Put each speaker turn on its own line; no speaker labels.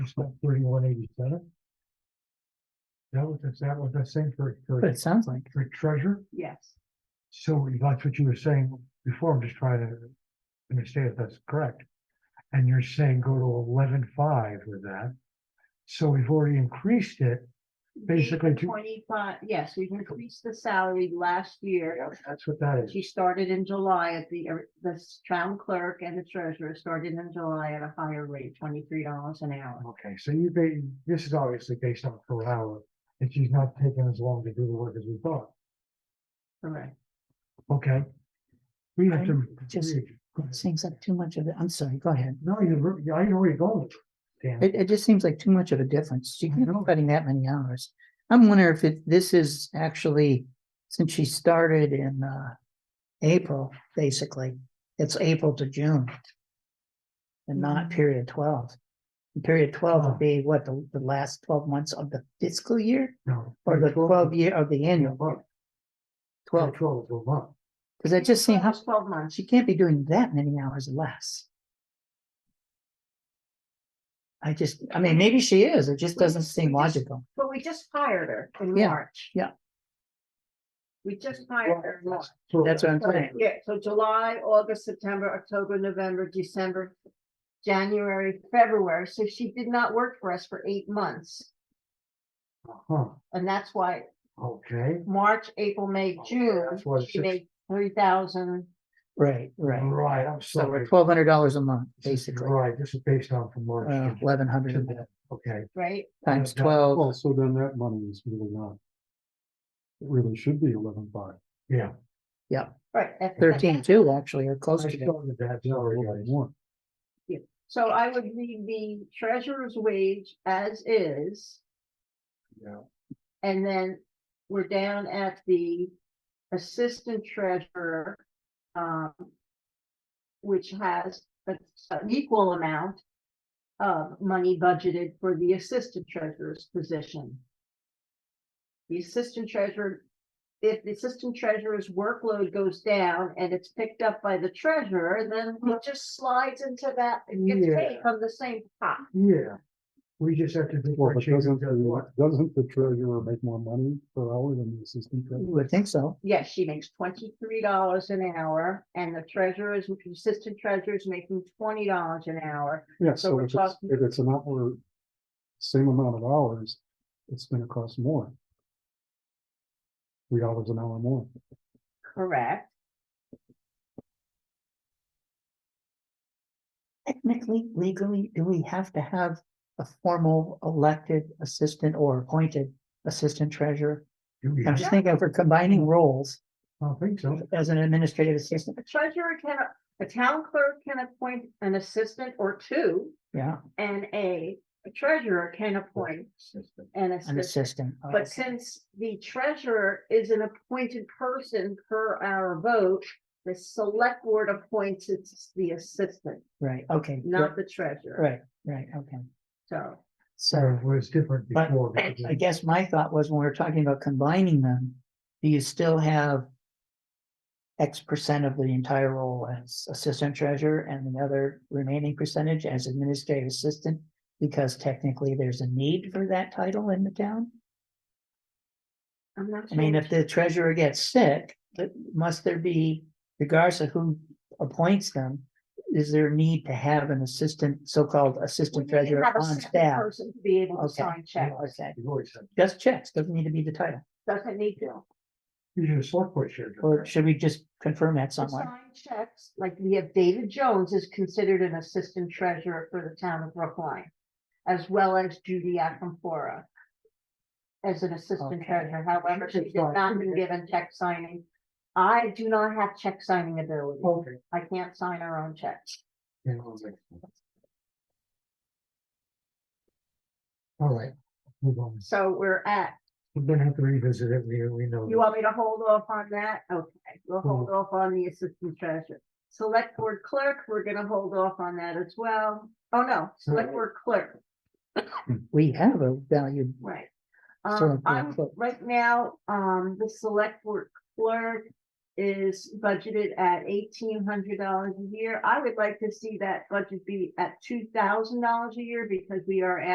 Thirty-one eighty-seven? That was, is that what that's saying for,
But
for,
it sounds like,
for treasure?
Yes.
So that's what you were saying before, I'm just trying to understand if that's correct. And you're saying go to eleven-five with that. So we've already increased it. Basically to-
Twenty-five, yes, we've increased the salary last year.
That's what that is.
She started in July at the, er, the s- town clerk and the treasurer started in July at a higher rate, twenty-three dollars an hour.
Okay, so you, ba- this is obviously based on per hour, and she's not taking as long to do the work as we thought.
Correct.
Okay. We have to.
Just- it seems like too much of it. I'm sorry, go ahead.
No, you're, I know where you're going. with it, Dan.
It, it just seems like too much of a difference. She
I
can't be
know.
cutting that many hours. I'm wondering if it, this is actually, since she started in, uh, April, basically, it's April to June. And not period twelve. And Period twelve
Oh.
would be what, the, the last twelve months of the fiscal year
No.
or the twelve year of the annual
Well,
twelve?
Twelve to a month.
Cause I just see how,
Almost Twelve months.
she can't be doing that many hours less. I just, I mean, maybe she is. It just
Well,
doesn't seem
we just-
logical.
But we just hired her in
Yeah,
March.
yeah.
We just hired her in March.
So-
That's what I'm saying.
Yeah, so July, August, September, October, November, December, January, February. So she did not work for us for eight months.
Huh,
And that's why
okay.
March, April, May,
Oh, Okay,
June,
that's what it
she
should-
made three thousand.
Right, right.
Right, I'm
So we're
sorry.
twelve hundred dollars a month,
This is-
basically, Uh,
Right, this is based on from March. to June.
eleven hundred
Okay.
right?
times
Yeah,
twelve.
Well, so then that money is really not. It really should be eleven five.
Yeah.
Right. that's-
Thirteen two, actually, or
I
close to that.
started that,
a
sorry,
little bit
guys.
more.
So I would leave the treasurer's wage as is,
Yeah.
and then we're down at the assistant treasurer. Um. Which has a- an equal amount of money budgeted for the assistant treasurer's position. The assistant treasurer, if the assistant treasurer's workload goes down and it's picked up by the treasurer, then it just slides into that, it gets paid
Yeah.
from the same pot.
Yeah. We just have to.
Well, but
differentiate
doesn't,
just
the-
what-
doesn't the treasurer make more money per hour than the assistant
You
treasurer?
would think so.
Yes, she makes twenty-three dollars an hour and the treasurer is, the assistant treasurer is making twenty dollars an hour.
Yeah,
So
so
we're
if it's,
talking-
if it's an hour, same amount of hours, it's gonna cost more. Three dollars an hour more.
Correct.
Technically, legally, do we have to have a formal elected assistant or appointed assistant treasurer?
Do we
I'm
have-
just thinking if we're combining roles
I don't think so.
as an administrative assistant,
The treasurer can, a town clerk can appoint an assistant or two
yeah,
and a treasurer can appoint an
an
assistant.
assistant. oh,
But since the treasurer is an appointed person per our vote, the select board appoints it's the assistant,
Right, okay,
not the treasurer.
right, right, okay.
So,
So.
So it was different
But
before. because
I
it-
guess my thought was when we we're talking about combining them, do you still have? X percent of the entire role as assistant treasurer and the other remaining percentage as administrative assistant? Because technically there's a need for that title in the town.
I'm not.
I mean,
sure.
if the treasurer gets sick, but must there be, regardless of who appoints them? Is there a need to have an assistant, so-called
We
assistant
need to
treasurer
have a
on
separate
staff?
Person to be able to
Okay,
sign checks,
Okay,
You've always said,
just checks, doesn't need to be the title.
doesn't need to.
you should have select board shared.
Or should we just confirm that
To
somewhere?
sign checks, like we have David Jones is considered an assistant treasurer for the town of Brookline. As well as Judy Acamfora. As an assistant
Okay.
treasurer, however, she
Check
did
sign.
not been given check signing. I do not have check signing ability.
Okay.
I can't sign our own checks.
Yeah, I was like- All right, move on.
So we're at,
We're gonna have to revisit it, we, we know.
you want me to hold off on that? Okay, we'll hold
Mm-hmm.
Mhm.
off on the assistant treasurer. Select board clerk, we're gonna hold off on that as well. Oh, no, select
Mm-hmm.
Mhm.
board clerk,
We have a valued,
right.
Select
Um,
board
I'm,
clerk.
right now, um, the select board clerk is budgeted at eighteen hundred dollars a year. I would like to see that budget be at two thousand dollars a year because we are